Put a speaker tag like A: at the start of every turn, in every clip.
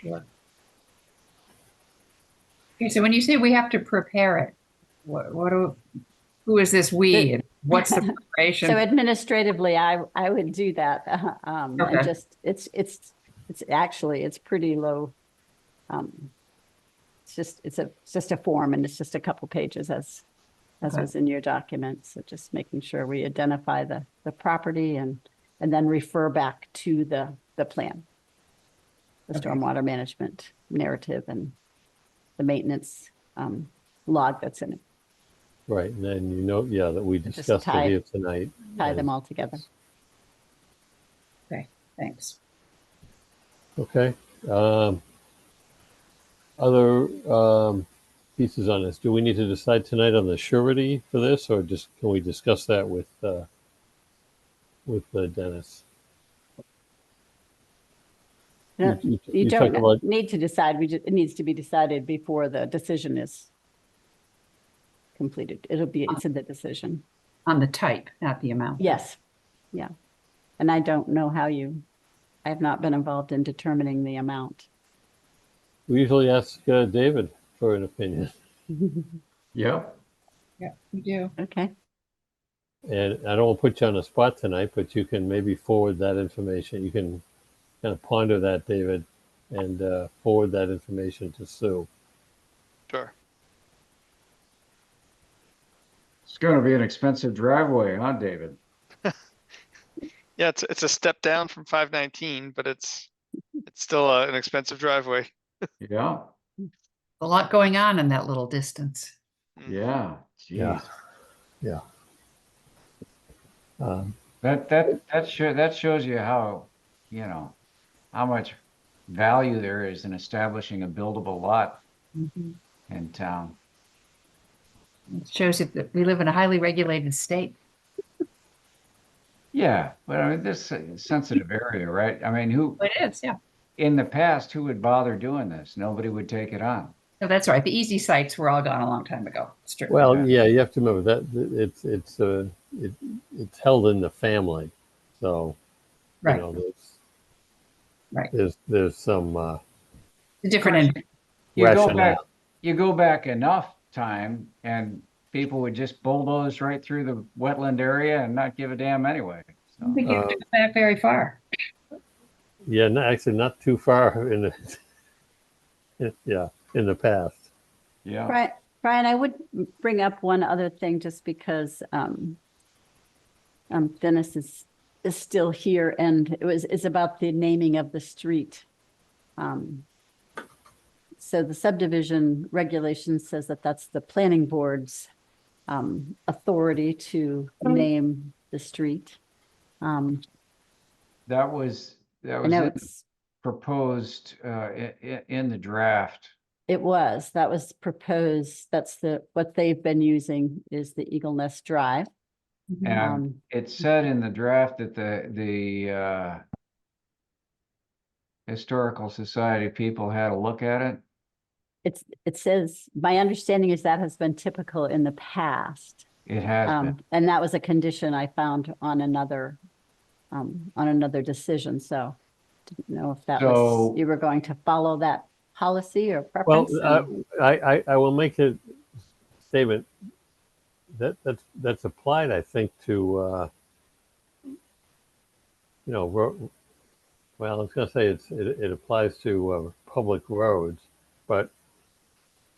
A: Sure.
B: Okay, so when you say we have to prepare it, what, what do, who is this we? and What's the
C: So
B: preparation?
C: administratively, I, I would do that. Um, I
B: Okay.
C: just, it's, it's, it's actually, it's pretty low. Um, It's just, it's a, it's just a form and it's just a couple pages as, as
B: Okay.
C: was in your document. So just making sure we identify the, the property and, and then refer back to the, the plan. The
B: Okay.
C: stormwater management narrative and the maintenance um, log that's in it,
A: Right, and then you know, yeah, that we
C: Just
A: discussed it
C: tie-
A: here tonight.
C: tie
A: and-
C: them all together.
B: Okay, thanks.
A: Okay. um, Other um, pieces on this, do we need to decide tonight on the surety for this, or just, can we discuss that with, uh, with uh, Dennis?
C: You know,
A: You- you-
C: You
A: you talked about-
C: don't need to decide, we just, it needs to be decided before the decision is completed. It'll be, it's in the decision.
B: On the type, not the amount.
C: Yes, yeah. And I don't know how you, I have not been involved in determining the amount.
A: We usually ask uh, David for an opinion,
D: Yep.
B: Yeah, we do.
C: Okay,
A: and I don't want to put you on the spot tonight, but you can maybe forward that information. You can kind of ponder that, David, and uh, forward that information to Sue.
E: Sure.
D: It's gonna be an expensive driveway, huh, David?
E: Yeah, it's it's a step down from five nineteen, but it's it's still uh, an expensive driveway.
D: Yeah,
B: A lot going on in that little distance.
E: Mm.
D: yeah,
A: Yeah.
D: geez.
A: Um,
D: That, that, that sure, that shows you how, you know, how much value there is in establishing a buildable lot Mm-hmm.
B: It
D: in town.
B: shows you that we live in a highly regulated state.
D: Yeah, but I mean, this is a sensitive area, right? I mean, who,
B: It is, yeah.
D: in the past, who would bother doing this? Nobody would take it on.
B: No, that's right. The easy sites were all gone a long time ago. It's true.
A: Well, yeah,
D: Yeah.
A: you have to remember that th- it's it's uh, it, it's held in the family, so you
B: Right,
A: know there's
B: Right.
A: there's there's some uh,
B: the different, in-
D: You go
A: rationale.
D: back, you go back enough time and people would just bulldoze right through the wetland area and not give a damn anyway.
B: I
D: So,
B: don't think you have to
A: Uh,
B: go back very far.
A: Yeah, no, actually, not too far in the yeah in the past.
D: yeah.
C: Brian, Brian, I would bring up one other thing just because um, um, Dennis is, is still here and it was, it's about the naming of the street. Um, So the subdivision regulation says that that's the planning board's um, authority to name the street. Um,
D: That was, that
C: I
D: was
C: know
D: in-
C: it's,
D: proposed, uh, i- i- in the draft.
C: it was, that was proposed, that's the, what they've been using is the Eagle Nest Drive.
B: Mhm.
D: And
C: Um,
D: it said in the draft that the, the, uh, Historical Society people had a look at it.
C: It's, it says, my understanding is that has been typical in the past.
D: It has been.
C: Um, and that was a condition I found on another, um, on another decision, so didn't know if that was,
D: So-
C: you were going to follow that policy or
A: Well,
C: preference?
A: uh,
C: and-
A: I, I I will make a statement that that's that's applied, I think, to uh, you know, ro- well, I was going to say it's it, it applies to uh, public roads, but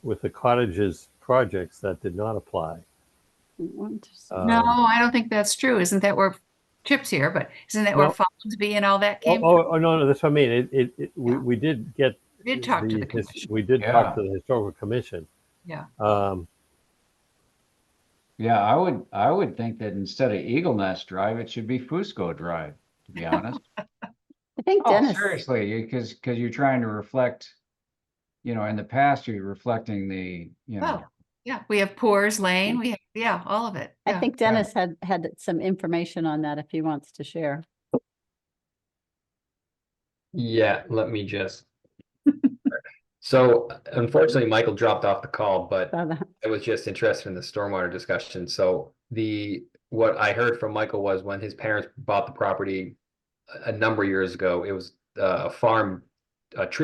A: with the cottages projects that did not apply.
C: Well, just-
A: Um,
B: No, I don't think that's true. Isn't that where Chip's here, but isn't that where
A: No.
B: Folsby and all that
A: Oh,
B: came? from?
A: oh, oh, no, no, that's what I mean. It, it, it we,
B: Yeah.
A: we did get
B: We Did talk to the
A: his-
B: commission.
A: We did talk to
D: Yeah.
A: the historical commission.
B: Yeah.
A: Um,
D: Yeah, I would, I would think that instead of Eagle Nest Drive, it should be Fusco Drive, to be honest.
C: I think
D: Oh,
C: Dennis,
D: seriously, you, cause, cause you're trying to reflect, you know, in the past, you're reflecting the, you know,
B: Oh, yeah, we have Poors Lane, we have, yeah, all of it.
C: I
B: yeah.
C: think Dennis had, had some information on that if he wants to share.
F: Yeah, let me just. So unfortunately, Michael dropped off the call, but
C: So that-
F: I was just interested in the stormwater discussion. So the, what I heard from Michael was when his parents bought the property a a number of years ago, it was uh, a farm, a tree